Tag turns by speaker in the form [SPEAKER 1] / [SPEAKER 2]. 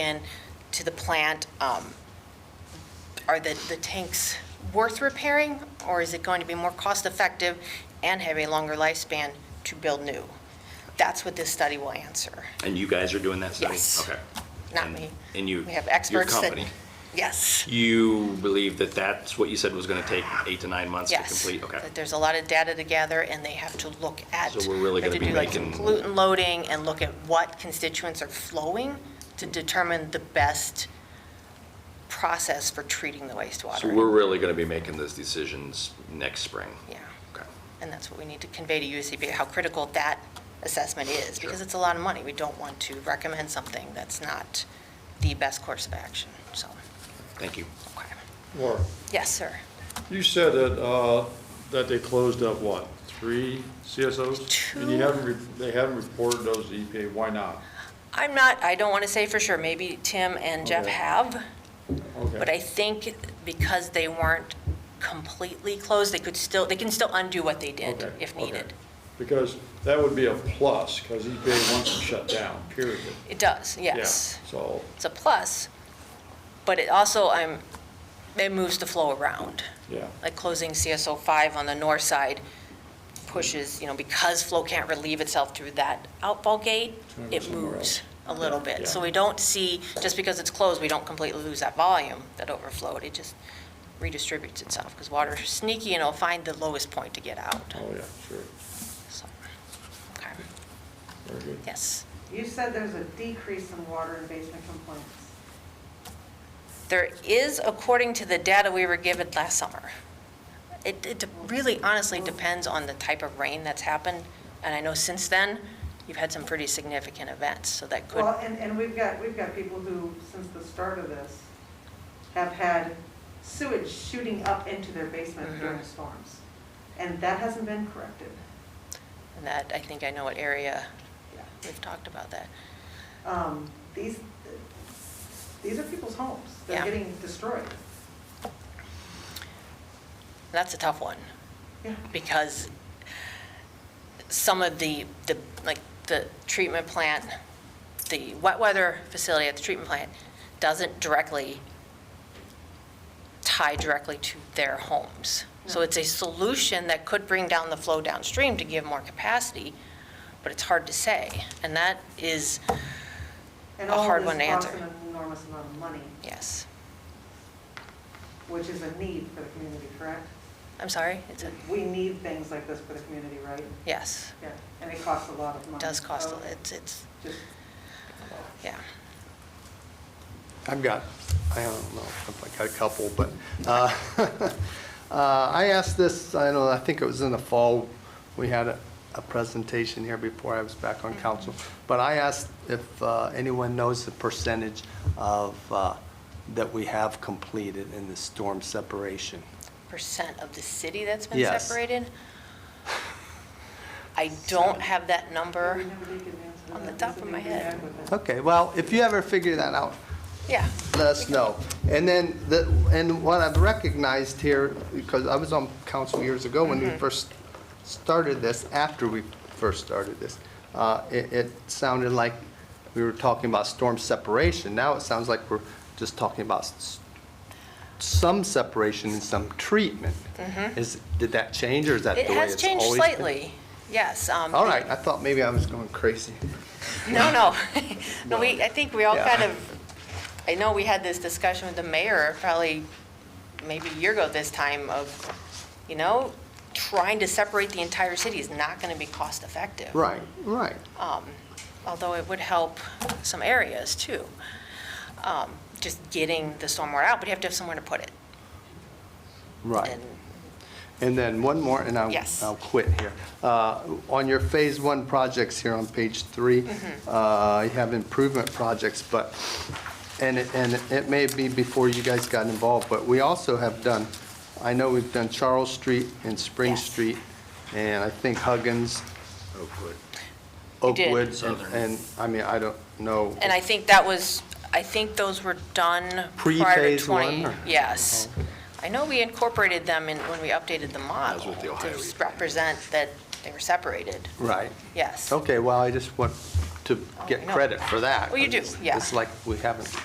[SPEAKER 1] addition to the plant, um, are the, the tanks worth repairing? Or is it going to be more cost-effective and have a longer lifespan to build new? That's what this study will answer,
[SPEAKER 2] And you guys are doing that study?
[SPEAKER 1] Yes.
[SPEAKER 2] Okay.
[SPEAKER 1] not
[SPEAKER 2] And-
[SPEAKER 1] me.
[SPEAKER 2] And you?
[SPEAKER 1] We have experts
[SPEAKER 2] Your
[SPEAKER 1] that.
[SPEAKER 2] company?
[SPEAKER 1] Yes,
[SPEAKER 2] You believe that that's what you said was going to take eight to nine months to
[SPEAKER 1] yes.
[SPEAKER 2] complete? Okay.
[SPEAKER 1] That There's a lot of data to gather, and they have to look at.
[SPEAKER 2] So we're really
[SPEAKER 1] they have
[SPEAKER 2] gonna be
[SPEAKER 1] do, like, some
[SPEAKER 2] making-
[SPEAKER 1] Pollutant loading and look at what constituents are flowing to determine the best process for treating the wastewater.
[SPEAKER 2] So we're really going to be making those decisions next spring?
[SPEAKER 1] Yeah.
[SPEAKER 2] Okay.
[SPEAKER 1] And that's what we need to convey to USCB, how critical that assessment is, because it's a lot of money. We don't want to recommend something that's not the best course of action, so,
[SPEAKER 2] Thank you.
[SPEAKER 1] okay.
[SPEAKER 3] Laura,
[SPEAKER 1] Yes, sir.
[SPEAKER 3] you said that, uh, that they closed up what, three CSOs? And you
[SPEAKER 1] Two.
[SPEAKER 3] haven't, re- they haven't reported those to EPA, why not?
[SPEAKER 1] I'm not, I don't want to say for sure, maybe Tim and Jeff
[SPEAKER 3] Okay.
[SPEAKER 1] have,
[SPEAKER 3] Okay.
[SPEAKER 1] but I think because they weren't completely closed, they could still, they can still undo what they did
[SPEAKER 3] Okay,
[SPEAKER 1] if
[SPEAKER 3] okay.
[SPEAKER 1] needed.
[SPEAKER 3] Because that would be a plus, because EPA wants to shut down, period.
[SPEAKER 1] It does,
[SPEAKER 3] Yeah,
[SPEAKER 1] yes.
[SPEAKER 3] So,
[SPEAKER 1] It's a plus, but it also, I'm, it moves the flow around.
[SPEAKER 3] yeah,
[SPEAKER 1] like closing CSO 5 on the north side pushes, you know, because flow can't relieve itself through that outfall gate,
[SPEAKER 3] Turn it
[SPEAKER 1] it
[SPEAKER 3] somewhere
[SPEAKER 1] moves a little bit. So
[SPEAKER 3] Yeah.
[SPEAKER 1] we don't see, just because it's closed, we don't completely lose that volume that overflowed. It just redistributes itself because water is sneaky and it'll find the lowest point to get out.
[SPEAKER 3] oh, yeah, sure,
[SPEAKER 1] So, okay,
[SPEAKER 3] very good.
[SPEAKER 1] yes.
[SPEAKER 4] You said there's a decrease in water and basement complaints.
[SPEAKER 1] There is, according to the data we were given last summer. It, it really honestly depends on the type of rain that's happened. And I know since then, you've had some pretty significant events, so that could,
[SPEAKER 4] Well, and, and we've got, we've got people who, since the start of this, have had sewage shooting up into their basement
[SPEAKER 1] Mm-hmm.
[SPEAKER 4] during storms. And that hasn't been corrected.
[SPEAKER 1] and that, I think I know what area, we've talked about that.
[SPEAKER 4] Um, These, these are people's homes. They're
[SPEAKER 1] Yeah.
[SPEAKER 4] getting destroyed.
[SPEAKER 1] That's a tough one,
[SPEAKER 4] Yeah.
[SPEAKER 1] because some of the, the, like, the treatment plant, the wet weather facility at the treatment plant doesn't directly tie directly to their homes. So
[SPEAKER 4] No.
[SPEAKER 1] it's a solution that could bring down the flow downstream to give more capacity, but it's hard to say. And that is,
[SPEAKER 4] And
[SPEAKER 1] A
[SPEAKER 4] all
[SPEAKER 1] hard
[SPEAKER 4] of
[SPEAKER 1] one to
[SPEAKER 4] this costs
[SPEAKER 1] answer.
[SPEAKER 4] an enormous amount of money,
[SPEAKER 1] yes,
[SPEAKER 4] which is a need for the community, correct?
[SPEAKER 1] I'm sorry, it's a,
[SPEAKER 4] We need things like this for the community, right?
[SPEAKER 1] yes,
[SPEAKER 4] Yeah, and it costs a lot of money.
[SPEAKER 1] it does cost,
[SPEAKER 4] So
[SPEAKER 1] a- it's, it's,
[SPEAKER 4] Just
[SPEAKER 1] yeah.
[SPEAKER 5] I've got, I don't know, I've got a couple, but uh, uh, I asked this, I don't know, I think it was in the fall, we had a, a presentation here before I was back on council, but I asked if uh, anyone knows the percentage of, uh, that we have completed in the storm separation.
[SPEAKER 1] percent of the city that's been
[SPEAKER 5] Yes.
[SPEAKER 1] separated? I don't have that
[SPEAKER 4] We
[SPEAKER 1] number.
[SPEAKER 4] never did get an answer.
[SPEAKER 1] uh, On the
[SPEAKER 4] They
[SPEAKER 1] top
[SPEAKER 4] said
[SPEAKER 1] of
[SPEAKER 4] they
[SPEAKER 1] my
[SPEAKER 4] came
[SPEAKER 1] head.
[SPEAKER 4] back with it.
[SPEAKER 5] Okay, well, if you ever figure that out,
[SPEAKER 1] Yeah,
[SPEAKER 5] let us know. And then, the and what I've recognized here, because I was on council years ago when we
[SPEAKER 1] Mm-hmm.
[SPEAKER 5] first started this, after we first started this, uh, it it sounded like we were talking about storm separation. Now it sounds like we're just talking about s- some separation and some treatment. Is, did that change, or is that the
[SPEAKER 1] Mm-hmm. it
[SPEAKER 5] way
[SPEAKER 1] has
[SPEAKER 5] it's
[SPEAKER 1] changed
[SPEAKER 5] always been?
[SPEAKER 1] slightly, yes. um,
[SPEAKER 5] All right, I thought maybe I was going crazy.
[SPEAKER 1] No, no, no, we, I think we all
[SPEAKER 5] Yeah.
[SPEAKER 1] kind of, I know we had this discussion with the mayor probably maybe a year ago this time of, you know, trying to separate the entire city is not going to be cost effective.
[SPEAKER 5] Right, right.
[SPEAKER 1] um, although it would help some areas too. Um, Just getting the stormwater out, but you have to have somewhere to put it.
[SPEAKER 5] Right.
[SPEAKER 1] And-
[SPEAKER 5] And then one more, and I'll,
[SPEAKER 1] Yes.
[SPEAKER 5] I'll quit here. Uh, On your Phase One projects here on page three,
[SPEAKER 1] Mm-hmm.
[SPEAKER 5] uh, you have improvement projects, but, and it, and it may be before you guys got involved, but we also have done, I know we've done Charles Street and Spring
[SPEAKER 1] Yes.
[SPEAKER 5] Street, and I think Huggins,
[SPEAKER 2] Oakwood.
[SPEAKER 1] We did.
[SPEAKER 5] Oakwoods, and- and, I mean, I don't know.
[SPEAKER 1] And I think that was, I think those were done prior to
[SPEAKER 5] Pre-phase
[SPEAKER 1] 20.
[SPEAKER 5] one, or- Uh-huh.
[SPEAKER 1] Yes. I know we incorporated them in, when we updated the model.
[SPEAKER 2] with the Ohio
[SPEAKER 1] To
[SPEAKER 2] Region.
[SPEAKER 1] represent that they were separated,
[SPEAKER 5] Right.
[SPEAKER 1] yes.
[SPEAKER 5] Okay, well, I just want to
[SPEAKER 1] Oh,
[SPEAKER 5] get
[SPEAKER 1] no.
[SPEAKER 5] credit for that.
[SPEAKER 1] Well, you do,
[SPEAKER 5] It's-
[SPEAKER 1] yeah.
[SPEAKER 5] It's like we haven't